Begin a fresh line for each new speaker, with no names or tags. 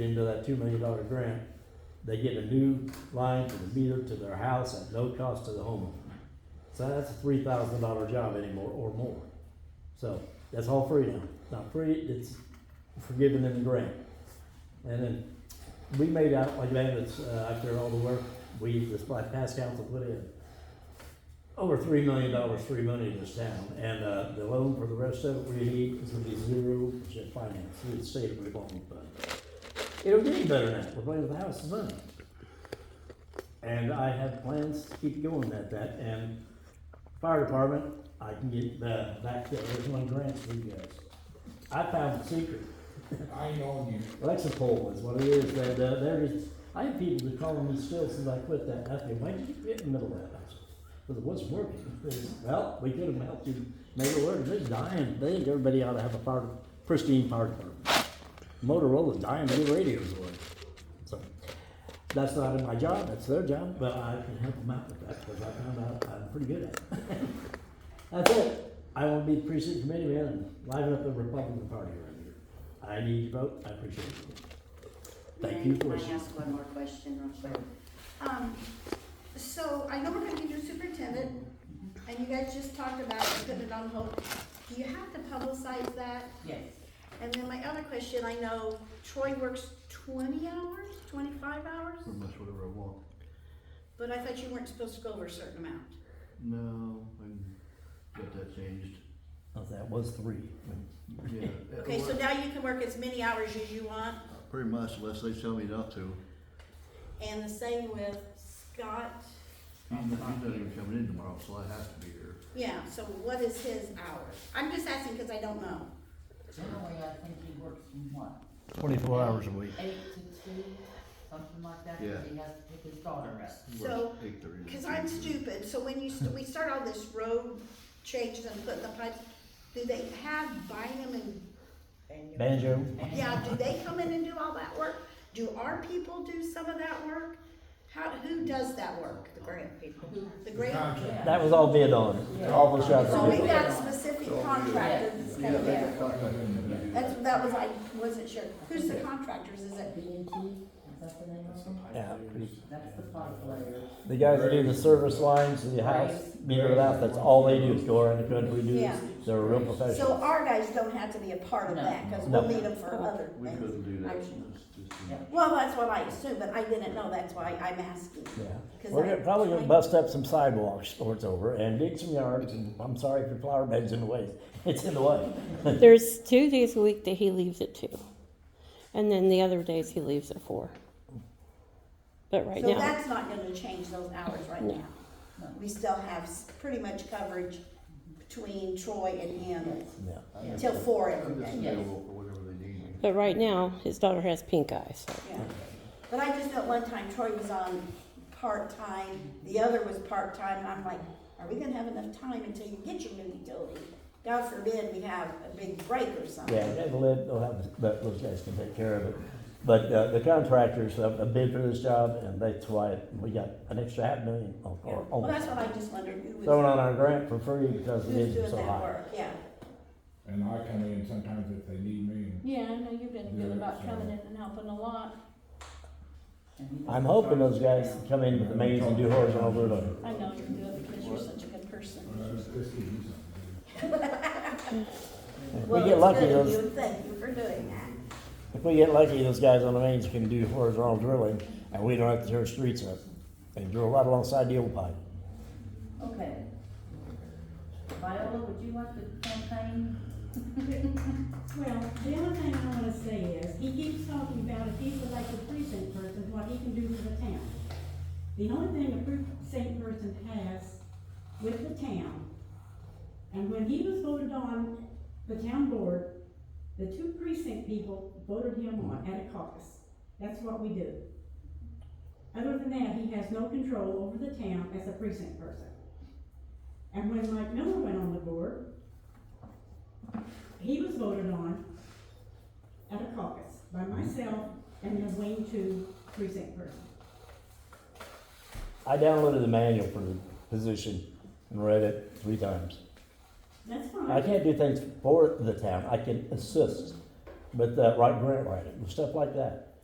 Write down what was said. into that two million dollar grant, they get a new line to the meter to their house at no cost to the homeowner. So that's a three thousand dollar job anymore or more. So that's all free now. Not free, it's for giving them the grant. And then we made out like bandits uh, after all the work we this black past council put in. Over three million dollars free money to this town, and uh, the loan for the rest of it we need is gonna be zero percent finance through the state of revolving fund. It'll get any better than that. We're playing with the house money. And I have plans to keep going at that, and fire department, I can get the, back to, there's one grant for you guys. I found the secret.
I know you.
Alexa poll is what it is, that, uh, there is, I have people that call me still since I quit that, I think, why did you quit in the middle of that? Because it wasn't working, They said, well, we could have helped you make it work, they're dying, they, think everybody ought to have a power, pristine power department. Motorola's dying to get radios away, so, that's not in my job, that's their job, but I can help them out with that, because I found out I'm pretty good at it. That's it. I want to be precinct committee man and liven up the Republican Party around here. I need your vote. I appreciate it. Thank you for
Can I ask one more question real quick? Um, so I know we're gonna do superintendent, and you guys just talked about putting it on hold. Do you have to publicize that?
Yes,
And then my other question, I know Troy works twenty hours, twenty-five hours,
Pretty much whatever I want.
but I thought you weren't supposed to go over a certain amount.
No, I can get that changed.
Oh, that was three.
Yeah.
Okay, so now you can work as many hours as you want,
Pretty much unless they tell me not to.
and the same with Scott.
He's not, he's not even coming in tomorrow, so I have to be here.
Yeah, so what is his hours? I'm just asking because I don't know.
generally, I think he works from what,
Twenty-four hours a week.
eight to two, something like that,
Yeah.
because he has to pick his daughter up.
He
So,
works 8:30 to
Because I'm
3:30.
stupid, so when you, st- we start all this road changes and putting the pipes, do they have Bynum and,
Banjo.
And-
yeah, do they come in and do all that work? Do our people do some of that work? How, who does that work? The grant people. The grant,
Contract.
That was all bid on. All the shots
so
were bid
we've
on.
got specific contractors that's
Yeah,
gonna
they
do
can contact him and do that.
That's, that was, I wasn't sure. Who's the contractors? Is it?
B and T, is that the name of them?
Yeah.
That's the pipe layer.
The guys that do the service lines to the house, meter it out, that's all they do is go around the country, do
Yeah.
this. They're a real professional.
So our guys don't have to be a part of that, cause we'll
No.
need them for other
We
things.
couldn't do that.
Actually.
It's just-
Yeah.
Well, that's what I assumed, but I didn't know, that's why I'm asking.
Yeah.
'Cause
We're
I-
gonna- probably gonna bust up some sidewalks before it's over and dig some yards and I'm sorry if your flower bed's in the way. It's in the way.
There's two days a week that he leaves at two, and then the other days he leaves at four. But right
So
now,
that's not gonna change those hours right now. We still have s- pretty much coverage between Troy and him
Yeah.
I'm just-
till four
I'm
every
just
day.
available for whatever they need me.
but right now his daughter has pink eye, so
Yeah. But I just know at one time Troy was on part-time, the other was part-time, and I'm like, are we gonna have enough time until you get your new utility? God forbid we have a big break or something.
Yeah, they will let, they'll have, but those guys can take care of it. But uh, the contractors have a bid for this job, and that's why we got an extra half million, or-
Yeah.
or
Well, that's
almost,
what I just wondered, who
thrown
was,
on our grant for free because the
who's
bids were
doing
so
that
high.
work, yeah.
And I come in sometimes if they need me.
Yeah, I know you've been good
Yeah,
about
so-
coming in and helping a lot.
And he
I'm
doesn't
hoping
charge
those
you
guys
down.
come in with the mains and do horizontal overload.
I know you do it because you're such a good person.
Uh, it's just to do something.
We
Well,
get
it's
lucky,
good of
those,
you, and Thank you for doing that.
if we get lucky, those guys on the mains can do horizontal drilling, and we don't have to tear streets up. They drill right alongside the old pipe.
Okay. Viola, would you like to campaign?
Well, the only thing I wanna say is, he keeps talking about if he's elected precinct person, what he can do for the town. The only thing a precinct person has with the town, and when he was voted on the town board, the two precinct people voted him on at a caucus. That's what we do. Other than that, he has no control over the town as a precinct person. And when Mike Miller went on the board, he was voted on at a caucus by myself and the wing two precinct person.
I downloaded the manual for the position and read it three times.
That's
I
fine.
can't do things for the town, I can assist with uh, right grant writing, and stuff like that.